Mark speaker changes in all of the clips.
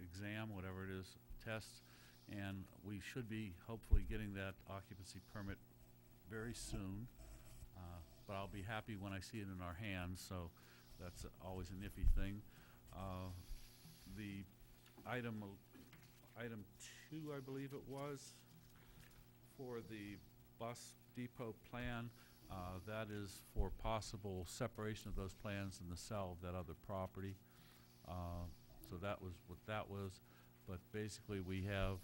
Speaker 1: exam, whatever it is, test, and we should be hopefully getting that occupancy permit very soon. Uh, But I'll be happy when I see it in our hands, so that's always a iffy thing. Uh, The item, o- item two, I believe it was, for the bus depot plan, uh, that is for possible separation of those plans and the sale of that other property. Uh, So that was what that was, but basically, we have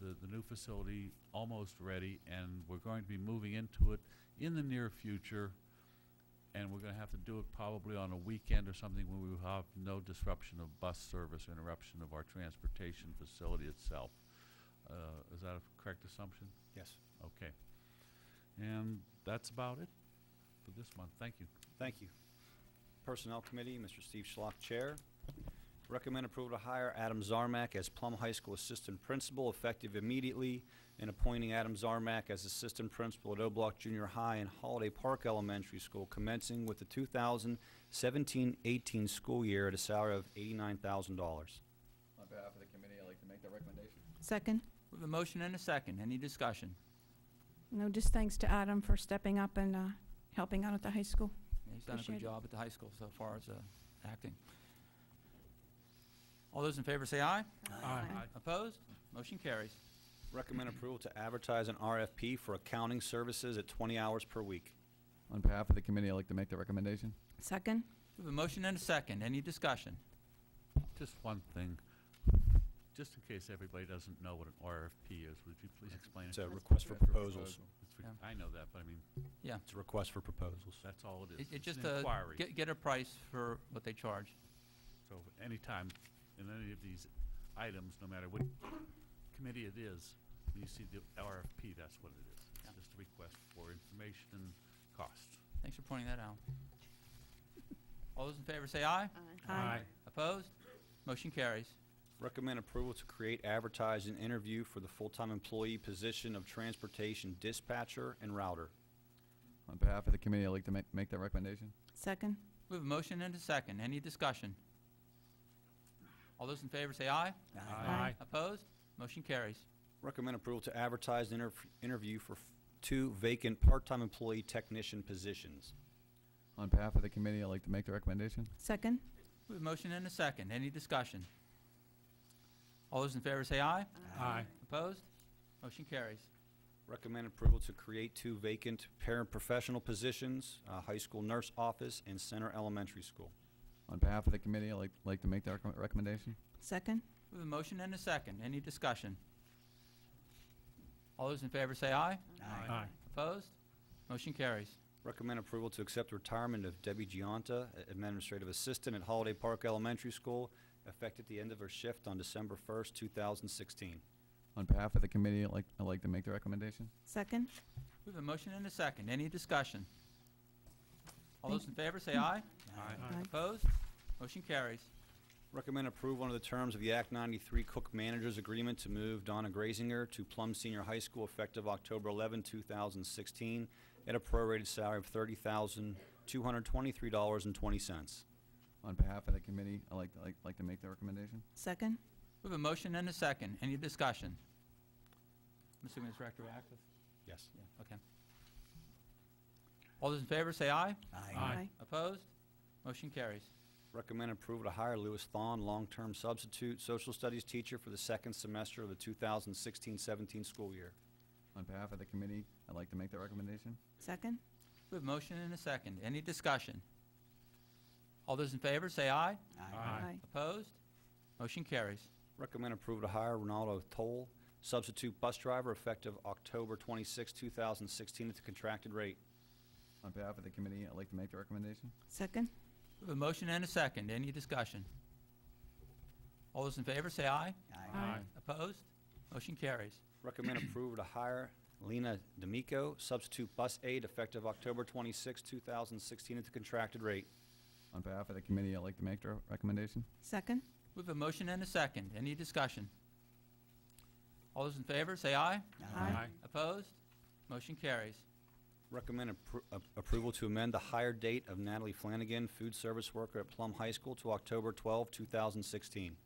Speaker 1: the, the new facility almost ready, and we're going to be moving into it in the near future, and we're gonna have to do it probably on a weekend or something when we have no disruption of bus service, interruption of our transportation facility itself. Uh, Is that a correct assumption?
Speaker 2: Yes.
Speaker 1: Okay. And that's about it for this month. Thank you.
Speaker 2: Thank you. Personnel Committee, Mr. Steve Schlock, Chair. Recommend approval to hire Adam Zarmak as Plum High School Assistant Principal effective immediately, and appointing Adam Zarmak as Assistant Principal at O'Block Junior High and Holiday Park Elementary School commencing with the 2017-18 school year at a salary of $89,000.
Speaker 3: On behalf of the committee, I'd like to make that recommendation.
Speaker 4: Second.
Speaker 5: We have a motion and a second. Any discussion?
Speaker 4: No, just thanks to Adam for stepping up and uh, helping out at the high school.
Speaker 5: He's done a
Speaker 4: Appreciate
Speaker 5: good
Speaker 4: it.
Speaker 5: job at the high school so far as uh, acting. All those in favor say aye.
Speaker 1: Aye.
Speaker 5: Opposed? Motion carries.
Speaker 2: Recommend approval to advertise an RFP for accounting services at 20 hours per week.
Speaker 3: On behalf of the committee, I'd like to make that recommendation.
Speaker 4: Second.
Speaker 5: We have a motion and a second. Any discussion?
Speaker 1: Just one thing, just in case everybody doesn't know what an RFP is, would you please explain it?
Speaker 2: It's a request for proposals.
Speaker 1: It's re- I know that, but I mean,
Speaker 5: Yeah.
Speaker 2: It's a request for proposals.
Speaker 1: that's all it is.
Speaker 5: It- It's
Speaker 1: an
Speaker 5: just a,
Speaker 1: inquiry.
Speaker 5: get get a price for what they charge.
Speaker 1: So anytime, in any of these items, no matter what committee it is, when you see the RFP, that's what it is.
Speaker 5: Yeah.
Speaker 1: It's just a request for information and cost.
Speaker 5: Thanks for pointing that out. All those in favor say aye.
Speaker 4: Aye.
Speaker 5: Opposed? Motion carries.
Speaker 2: Recommend approval to create, advertise, and interview for the full-time employee position of transportation dispatcher and router.
Speaker 3: On behalf of the committee, I'd like to ma- make that recommendation.
Speaker 4: Second.
Speaker 5: We have a motion and a second. Any discussion? All those in favor say aye.
Speaker 4: Aye.
Speaker 5: Opposed? Motion carries.
Speaker 2: Recommend approval to advertise and interf- interview for f- two vacant part-time employee technician positions.
Speaker 3: On behalf of the committee, I'd like to make the recommendation.
Speaker 4: Second.
Speaker 5: We have a motion and a second. Any discussion? All those in favor say aye.
Speaker 1: Aye.
Speaker 5: Opposed? Motion carries.
Speaker 2: Recommend approval to create two vacant paraprofessional positions, uh, high school nurse office and center elementary school.
Speaker 3: On behalf of the committee, I'd like, like to make that recomm- recommendation.
Speaker 4: Second.
Speaker 5: We have a motion and a second. Any discussion? All those in favor say aye.
Speaker 1: Aye.
Speaker 5: Opposed? Motion carries.
Speaker 2: Recommend approval to accept the retirement of Debbie Giunta, Administrative Assistant at Holiday Park Elementary School, effective the end of her shift on December 1st, 2016.
Speaker 3: On behalf of the committee, I'd like, I'd like to make the recommendation.
Speaker 4: Second.
Speaker 5: We have a motion and a second. Any discussion? All those in favor say aye.
Speaker 4: Aye.
Speaker 5: Opposed? Motion carries.
Speaker 2: Recommend approval under the terms of the Act 93 Cook Managers Agreement to move Donna Grazinger to Plum Senior High School effective October 11, 2016, at a prorated salary of $30,223.20.
Speaker 3: On behalf of the committee, I'd like, like, like to make the recommendation.
Speaker 4: Second.
Speaker 5: We have a motion and a second. Any discussion? I'm assuming it's retroactive?
Speaker 2: Yes.
Speaker 5: Yeah, okay. All those in favor say aye.
Speaker 4: Aye.
Speaker 5: Opposed? Motion carries.
Speaker 2: Recommend approval to hire Lewis Thon, long-term substitute social studies teacher for the second semester of the 2016-17 school year.
Speaker 3: On behalf of the committee, I'd like to make the recommendation.
Speaker 4: Second.
Speaker 5: We have a motion and a second. Any discussion? All those in favor, say aye.
Speaker 4: Aye.
Speaker 5: Opposed? Motion carries.
Speaker 2: Recommend approval to hire Ronaldo Toll, substitute bus driver, effective October 26, 2016, at the contracted rate.
Speaker 3: On behalf of the committee, I'd like to make the recommendation.
Speaker 4: Second.
Speaker 5: We have a motion and a second. Any discussion? All those in favor, say aye.
Speaker 4: Aye.
Speaker 5: Opposed? Motion carries.
Speaker 2: Recommend approval to hire Lena D'Amico, substitute bus aide, effective October 26, 2016, at the contracted rate.
Speaker 3: On behalf of the committee, I'd like to make the recommendation.
Speaker 4: Second.
Speaker 5: We have a motion and a second. Any discussion? All those in favor, say aye.
Speaker 4: Aye.
Speaker 5: Opposed? Motion carries.
Speaker 2: Recommend appro- a- approval to amend the hire date of Natalie Flanagan, food service worker at Plum High School, to October 12, 2016.